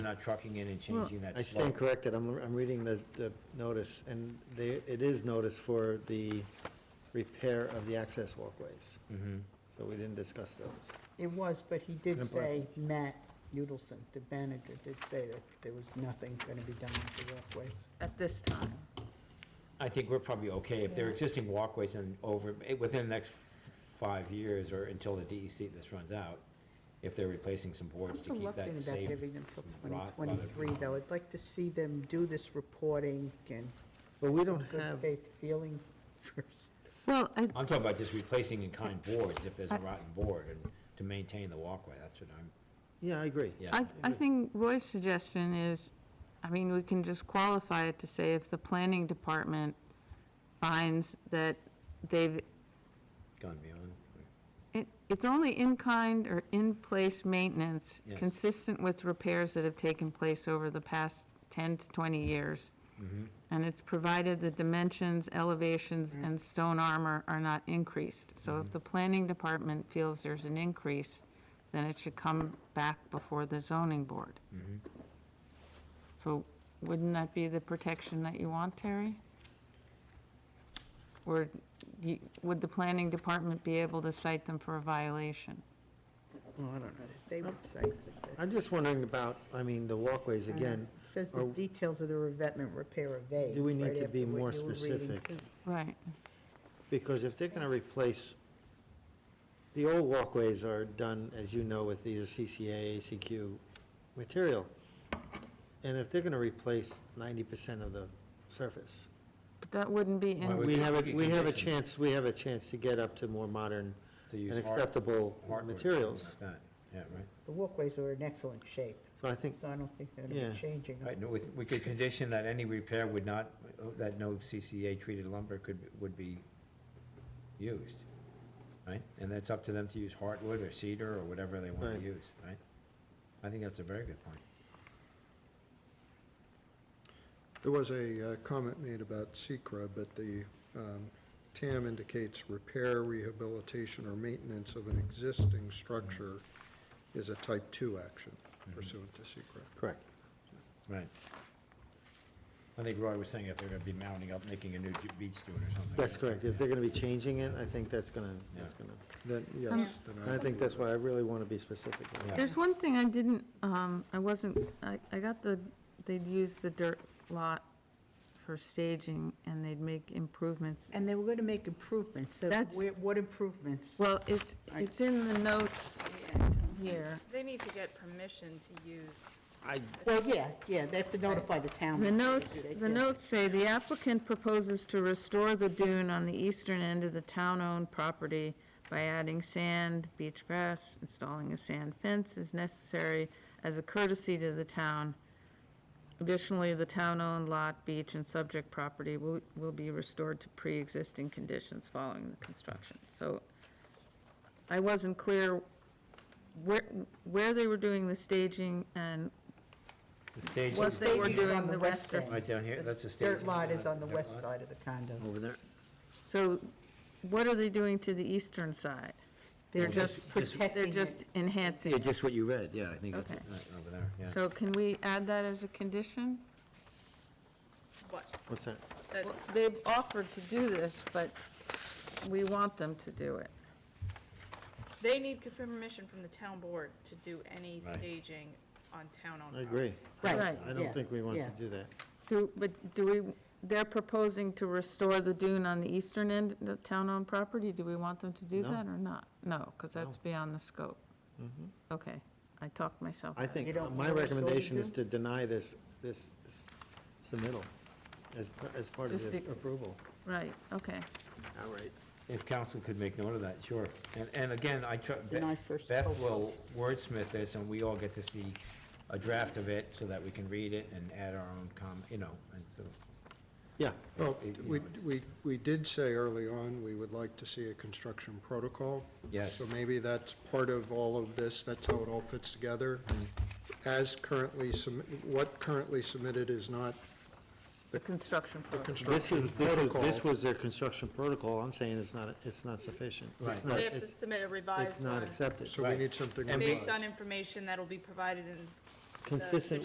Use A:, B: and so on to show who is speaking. A: We're not trucking in and changing that
B: I
A: slope.
B: stand corrected, I'm, I'm reading the, the notice, and they, it is notice for the repair of the access walkways,
A: Mhm.
B: so we didn't discuss those.
C: It was, but he did
B: And
C: say, Matt Udelson, the manager, did say that there was nothing going to be done with the walkways.
D: at this time.
A: I think we're probably okay. If there are existing walkways and over, eh, within the next f- five years or until the DEC this runs out, if they're replacing some boards to
C: I'm
A: keep
C: reluctant
A: that
C: about
A: safe.
C: giving them till
A: from rot by the
C: 2023, though. I'd like to see them do this reporting and
B: But we don't
C: good
B: have,
C: faith feeling first.
E: Well, I,
A: I'm talking about just replacing in-kind boards if there's a rotten board and to maintain the walkway. That's what I'm,
B: yeah, I agree.
A: yeah.
E: I, I think Roy's suggestion is, I mean, we can just qualify it to say if the planning department finds that they've,
A: Gone beyond.
E: it, it's only in-kind or in-place maintenance
A: Yes.
E: consistent with repairs that have taken place over the past ten to twenty years. And it's provided the dimensions, elevations, and stone armor are not increased. So if the planning department feels there's an increase, then it should come back before the zoning board. So wouldn't that be the protection that you want, Terry? Or you- would the planning department be able to cite them for a violation?
C: Well, I don't know. They would say, that the-
B: I'm just wondering about, I mean, the walkways
C: Uh-huh.
B: again,
C: it says the
B: Are-
C: details of the revetment repair are vague.
B: do we need
C: right
B: to be
C: after what
B: more
C: you were reading,
B: specific?
C: too.
E: Right.
B: Because if they're gonna replace, the old walkways are done, as you know, with either CCA, ACQ material. And if they're gonna replace ninety percent of the surface,
E: But that wouldn't be
A: Why
E: in,
A: would-
B: we have,
A: Good
B: a we have a
A: condition.
B: chance, we have a chance to get up to more modern
A: To use
B: and
A: hard-
B: acceptable
A: hardwood, something
B: materials.
A: like that. Yeah, right.
C: The walkways are in excellent shape,
B: So I think,
C: so I don't think they're going to
B: Yeah.
C: be changing. them.
A: Right, no, we, we could condition that any repair would not, that no CCA treated lumber could, would be used, right? And that's up to them to use hardwood or cedar or whatever they want
B: Right.
A: to use, right? I think that's a very good point.
F: There was a uh, comment made about Secra, but the um, TAM indicates repair, rehabilitation, or maintenance of an existing structure is a type two action
B: Mm-hmm.
F: pursuant to Secra.
B: correct.
A: Right. I think Roy was saying if they're gonna be mounting up, making a new ju- beach dune or something.
B: That's correct. If they're gonna be changing it, I think that's gonna, that's gonna,
F: Then, yes. then
B: and I think that's why I really wanna be specific. on that.
A: Yeah.
E: there's one thing I didn't, um, I wasn't, I, I got the, they'd use the dirt lot for staging and they'd make improvements.
C: And they were going to make improvements. So
E: That's-
C: where- What improvements?
E: Well, it's, it's in the notes here.
D: They need to get permission to use.
B: I,
C: Well, yeah, yeah, they have to notify the town.
E: The
C: when they
E: notes,
C: do that,
E: the
C: yeah.
E: notes say the applicant proposes to restore the dune on the eastern end of the town-owned property by adding sand, beach grass, installing a sand fence is necessary as a courtesy to the town. Additionally, the town-owned lot, beach, and subject property will, will be restored to pre-existing conditions following the construction. So I wasn't clear where, where they were doing the staging and
A: The stage,
E: what they were
C: staging is
E: doing
C: on
E: the
C: the
E: rest
C: west
E: of
C: end.
A: right down here, that's the stage.
C: Dirt lot is on the
A: Dirt
C: west
A: lot.
C: side of the condo.
A: Oh,
B: over there.
E: So what are they doing to the eastern side? They're
A: oh,
E: just, they're
C: protecting
E: just
C: it.
E: enhancing
A: Yeah,
E: it.
A: just what you read, yeah, I think that's,
E: Okay.
A: right, over there, yeah.
E: So can we add that as a condition?
D: What?
B: What's that?
D: That-
E: Well, They've offered to do this, but we want them to do it.
D: They need permission from the town board to do any
A: Right.
D: staging on town-owned.
B: I agree.
E: Right.
B: I
C: yeah,
B: don't think we want
C: yeah.
B: to do that.
E: Do, but do we, they're proposing to restore the dune on the eastern end of the town-owned property. Do we want them to do
B: No.
E: that or not? No, because that's beyond the scope. Okay, I talked myself.
B: I
E: out of
B: think,
C: You don't
B: my
C: know what it's going to
B: recommendation is
C: do?
B: to deny this, this s- submittal as, par- as part of
E: Just
B: the
E: the-
B: approval.
E: it. Right, okay.
B: Outright.
A: If council could make note of that, sure. And, and again, I try,
C: Then I
A: Beth
C: first
A: Beth
C: hope.
A: will wordsmith this, and we all get to see a draft of it, so that we can read it and add our own comment, you know, and so.
B: Yeah,
F: Well,
A: It- you
F: we,
A: know, it's-
F: we, we did say early on, we would like to see a construction protocol.
A: Yes.
F: So maybe that's part of all of this, that's how it all fits together.
B: Mm.
F: As currently, submi- what currently submitted is not
E: The construction
F: the
E: project.
B: this
F: construction
B: is, this is,
F: protocol.
B: this was their construction protocol, I'm saying it's not, it's not sufficient. It's
A: Right.
B: not-
D: They have to
B: it's-
D: submit a
B: It's
D: revised
B: not
D: one,
B: accepted.
F: So we
A: Right.
F: need something.
A: And
F: revised.
D: based on information that'll be provided in the
B: Consistent